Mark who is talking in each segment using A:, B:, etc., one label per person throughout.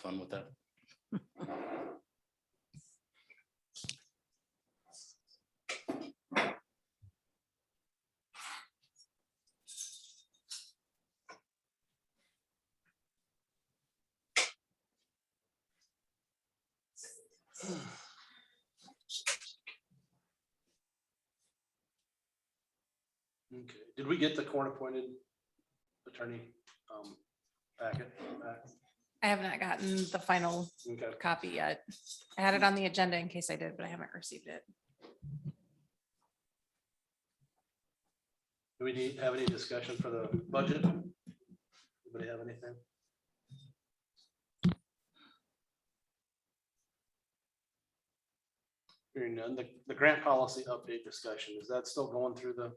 A: fun with that. Okay, did we get the court appointed attorney um, packet? back?
B: I have not gotten the final
A: Okay,
B: copy yet. I had it on the agenda in case I did, but I haven't received it.
A: do we need, have any discussion for the budget? Anybody have anything? Hearing none, the, the grant policy update discussion, is that still going through the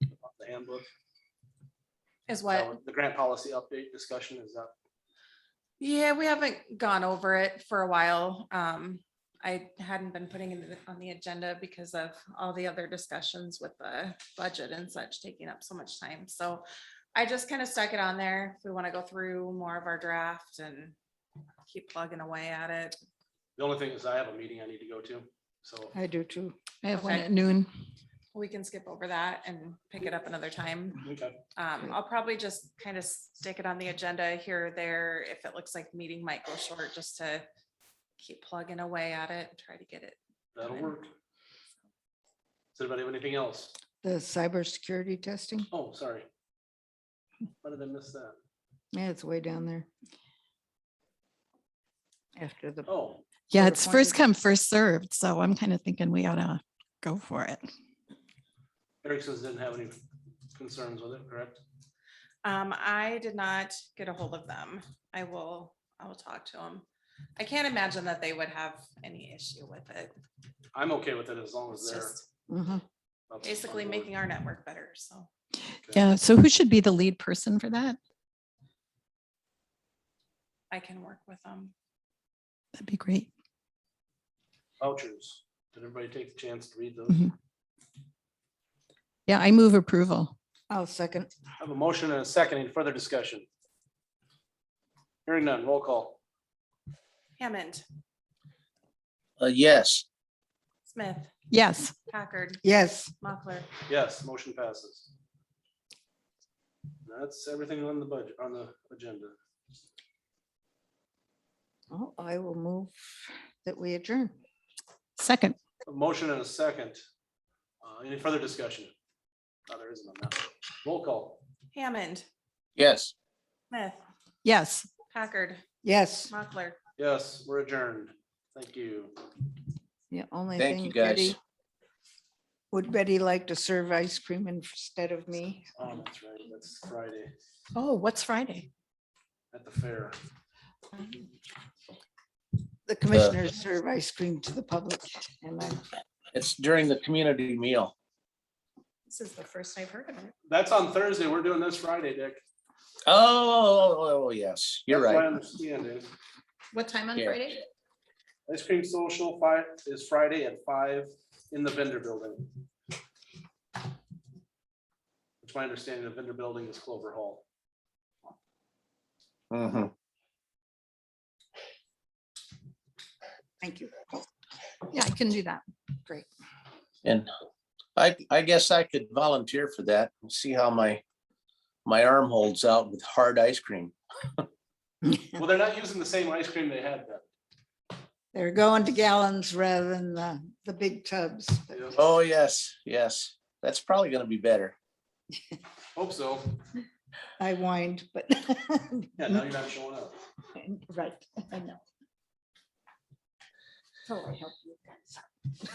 A: the handbook?
B: Is what,
A: The grant policy update discussion, is that
B: yeah, we haven't gone over it for a while. Um, I hadn't been putting it on the agenda because of all the other discussions with the budget and such taking up so much time. So I just kind of stuck it on there. If we want to go through more of our draft and keep plugging away at it.
A: The only thing is I have a meeting I need to go to, so
C: I do too. I have one
B: Okay.
C: at noon.
B: We can skip over that and pick it up another time.
A: okay,
B: Um, I'll probably just kind of stick it on the agenda here or there if it looks like the meeting might go short, just to keep plugging away at it and try to get it.
A: that'll work. Does anybody have anything else?
C: The cybersecurity testing,
A: Oh, sorry. How did I miss that?
C: yeah, it's way down there. After the,
A: Oh,
D: Yeah,
C: Or
D: it's first
C: appointed.
D: come, first served. So I'm kind of thinking we ought to go for it.
A: Erickson's didn't have any concerns with it, correct?
B: Um, I did not get a hold of them. I will, I will talk to them. I can't imagine that they would have any issue with it.
A: I'm okay with it as long as
B: It's
A: they're.
B: just
C: Mhm.
A: up on
B: basically
A: board.
B: making our network better, so.
A: Okay.
D: Yeah. So who should be the lead person for that?
B: I can work with them.
D: That'd be great.
A: Vouchers. Did everybody take the chance to read those?
D: Mhm. Yeah, I move approval.
C: oh, second,
A: I have a motion and a second. Any further discussion? Hearing none, roll call.
B: Hammond,
E: Uh, yes,
B: Smith,
D: Yes.
B: Packard,
C: yes,
B: Mochler.
A: Yes, motion passes. That's everything on the budget, on the agenda.
C: Oh, I will move that we adjourn.
D: Second.
A: A motion and a second. Uh, Any further discussion? No, there isn't on that. Roll call.
B: Hammond,
E: yes.
B: Smith,
D: Yes.
B: Packard,
C: Yes,
B: Mochler.
A: Yes, we're adjourned. Thank you.
C: the only
E: Thank you,
C: thing
E: guys.
C: Betty. Would Betty like to serve ice cream instead of me?
A: Oh, that's right. That's Friday
D: Oh, what's Friday?
A: at the fair.
C: The
E: Uh.
C: commissioners serve ice cream to the public and I'm
E: It's during the community meal.
B: This is the first I've heard of it.
A: That's on Thursday. We're doing this Friday, Dick.
E: Oh, oh, oh, yes, you're
A: That's My
E: right.
A: understanding.
B: What time on
E: Yeah.
B: Friday?
A: Ice cream social five is Friday at five in the vendor building. It's my understanding the vendor building is Clover Hall.
E: Mhm.
C: thank you.
D: Yeah, I can do that.
E: And I, I guess I could volunteer for that and see how my, my arm holds out with hard ice cream.
A: Well, they're not using the same ice cream they had then.
C: They're going to gallons rather than the, the big tubs. but
A: Yeah,
E: Oh, yes, yes, that's probably gonna be better.
A: Hope so.
C: I whined, but.
A: Yeah, now you're not showing up.
C: Right, I know. So I help you guys.